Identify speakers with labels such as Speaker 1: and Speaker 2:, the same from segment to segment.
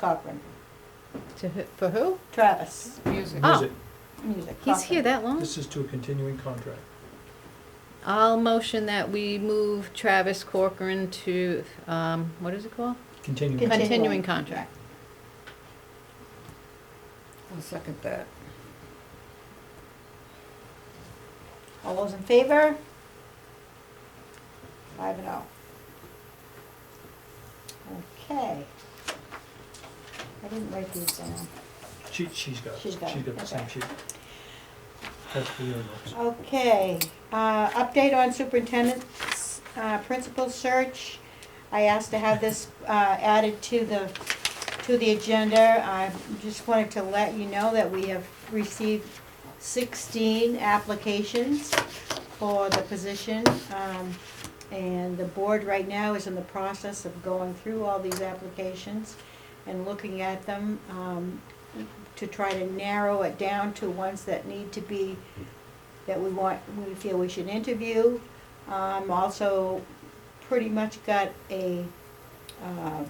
Speaker 1: Cochran,
Speaker 2: To who, for who?
Speaker 1: Travis,
Speaker 3: Music.
Speaker 2: Oh.
Speaker 4: Visit.
Speaker 1: music.
Speaker 2: He's
Speaker 1: Cochran.
Speaker 2: here that long?
Speaker 4: This is to a continuing contract.
Speaker 2: I'll motion that we move Travis Corcoran to, um, what is it called?
Speaker 4: Continuing.
Speaker 1: Continue.
Speaker 2: Continuing contract.
Speaker 3: I'll second that.
Speaker 1: All those in favor? Five and oh. Okay. I didn't write these down.
Speaker 4: She, she's got, it.
Speaker 1: She's
Speaker 4: she's
Speaker 1: got it,
Speaker 4: got the same
Speaker 1: okay. Oh,
Speaker 4: sheet. That's for your notes.
Speaker 1: Okay, uh, update on superintendent's, uh, principal search. I asked to have this, uh, added to the, to the agenda. I just wanted to let you know that we have received sixteen applications for the position. Um, and the board right now is in the process of going through all these applications and looking at them, um, to try to narrow it down to ones that need to be that we want, we feel we should interview. Um, also, pretty much got a, uh,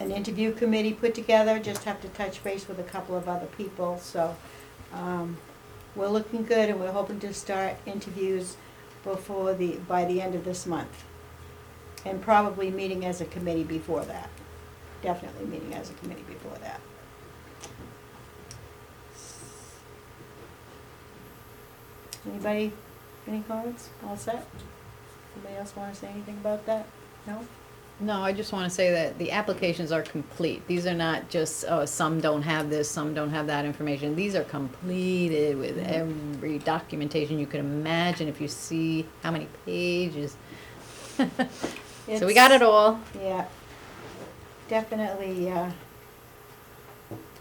Speaker 1: an interview committee put together, just have to touch base with a couple of other people, so, um, we're looking good and we're hoping to start interviews before the, by the end of this month. And probably meeting as a committee before that, definitely meeting as a committee before that. Anybody, any comments? All set? Anybody else wanna say anything about that? No?
Speaker 2: No, I just wanna say that the applications are complete. These are not just, oh, some don't have this, some don't have that information. These are completed with every documentation you could imagine if you see how many pages. So we got it all.
Speaker 1: Yeah. Definitely, uh,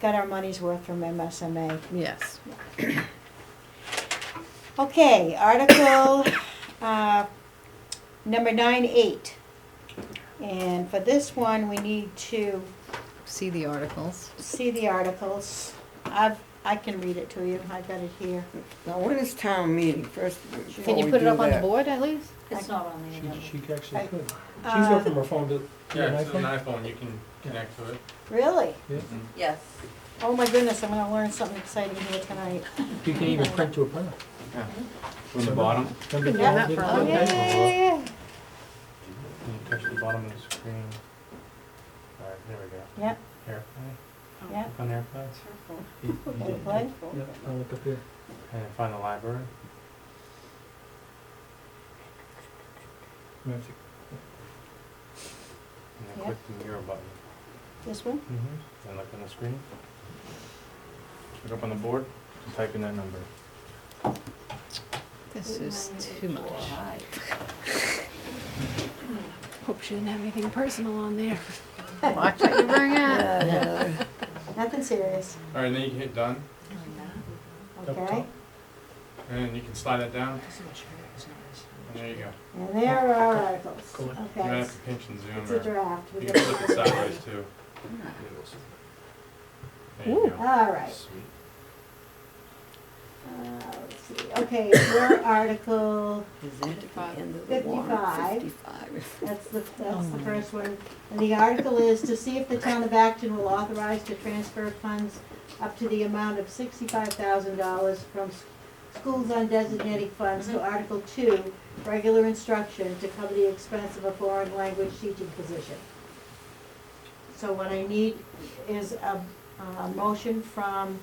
Speaker 1: got our money's worth from MSMA.
Speaker 2: Yes.
Speaker 1: Okay, article, uh, number nine eight. And for this one, we need to
Speaker 2: See the articles.
Speaker 1: see the articles. I've, I can read it to you. I've got it here.
Speaker 3: Now, when is town meeting, first, before
Speaker 2: Can you
Speaker 3: we
Speaker 2: put it
Speaker 3: do
Speaker 2: up on the
Speaker 3: that?
Speaker 2: board at least?
Speaker 1: It's
Speaker 5: not on
Speaker 4: She, she actually
Speaker 1: I-
Speaker 4: could. She can go
Speaker 1: Uh,
Speaker 4: from her phone to, to an
Speaker 6: Yeah, it's an
Speaker 4: iPhone.
Speaker 6: iPhone, you can connect to it.
Speaker 1: Really?
Speaker 4: Yeah.
Speaker 5: Yes.
Speaker 1: Oh my goodness, I'm gonna learn something exciting here tonight.
Speaker 4: You can even print to a printer.
Speaker 1: Mm-hmm.
Speaker 6: From the bottom?
Speaker 4: Remember
Speaker 1: do
Speaker 4: the old
Speaker 1: that
Speaker 4: little
Speaker 2: from-
Speaker 4: thing?
Speaker 2: yeah,
Speaker 1: Oh, yeah,
Speaker 6: Can you touch the bottom of the screen? All right, there we go.
Speaker 1: yeah.
Speaker 6: AirPlay,
Speaker 1: Yeah,
Speaker 6: click on AirPlay,
Speaker 4: You- you
Speaker 1: yeah,
Speaker 4: did.
Speaker 1: play.
Speaker 4: Yeah, I'll look up here.
Speaker 6: and then find the library.
Speaker 4: We have to-
Speaker 6: And
Speaker 1: Yeah.
Speaker 6: then click the mirror button.
Speaker 1: This one?
Speaker 6: Mm-hmm. And look on the screen. Look up on the board, and type in that number.
Speaker 2: This is too much.
Speaker 7: Hope she didn't have anything personal on there.
Speaker 2: Watch what you bring up.
Speaker 1: Nothing serious,
Speaker 6: All right, then you can hit done,
Speaker 4: Up
Speaker 1: okay?
Speaker 4: top.
Speaker 6: and you can slide it down, and there you go.
Speaker 1: And there are our articles,
Speaker 4: Cool.
Speaker 6: You might
Speaker 1: okay?
Speaker 6: have to pinch and
Speaker 1: It's
Speaker 6: zoom,
Speaker 1: a
Speaker 6: or
Speaker 1: draft. we
Speaker 6: you can flip
Speaker 1: got-
Speaker 6: it sideways too. There you go.
Speaker 1: All right,
Speaker 6: Sweet.
Speaker 1: uh, let's see, okay, your article,
Speaker 3: Is that at the end of the warrant,
Speaker 1: Fifty-five.
Speaker 3: fifty-five?
Speaker 1: that's the, that's the first one. And the article is to see if the town of Acton will authorize to transfer funds up to the amount of sixty-five thousand dollars from s- schools undesignated funds to Article Two, regular instruction to cover the expense of a foreign language teaching position. So what I need is a, a motion from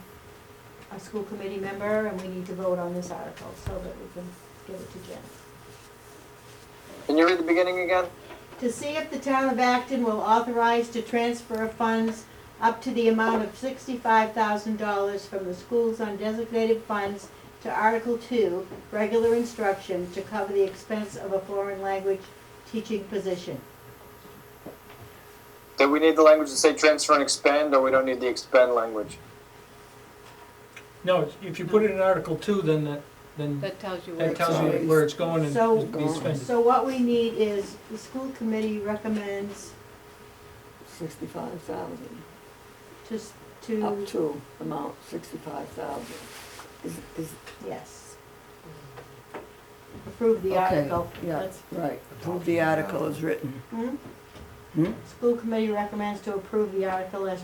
Speaker 1: a school committee member, and we need to vote on this article so that we can give it to Jen.
Speaker 8: Can you read the beginning again?
Speaker 1: to see if the town of Acton will authorize to transfer funds up to the amount of sixty-five thousand dollars from the school's undesignated funds to Article Two, regular instruction, to cover the expense of a foreign language teaching position.
Speaker 8: Do we need the language to say transfer and expand, or we don't need the expand language?
Speaker 4: No, it's- if you put it in Article Two, then that, then
Speaker 2: That tells you what
Speaker 4: that
Speaker 2: it's
Speaker 4: tells you
Speaker 3: always-
Speaker 4: where it's going and
Speaker 1: So-
Speaker 4: it's being spent.
Speaker 1: So what we need is, the school committee recommends
Speaker 3: Sixty-five thousand,
Speaker 1: to, s-
Speaker 3: up
Speaker 7: Mm.
Speaker 1: to,
Speaker 3: to amount sixty-five thousand. Is, is,
Speaker 1: yes. Approve the
Speaker 3: Okay,
Speaker 1: article.
Speaker 3: yeah,
Speaker 1: Let's-
Speaker 3: right, approve the article as written.
Speaker 1: Hmm?
Speaker 3: Hmm?
Speaker 1: School committee recommends to approve the article as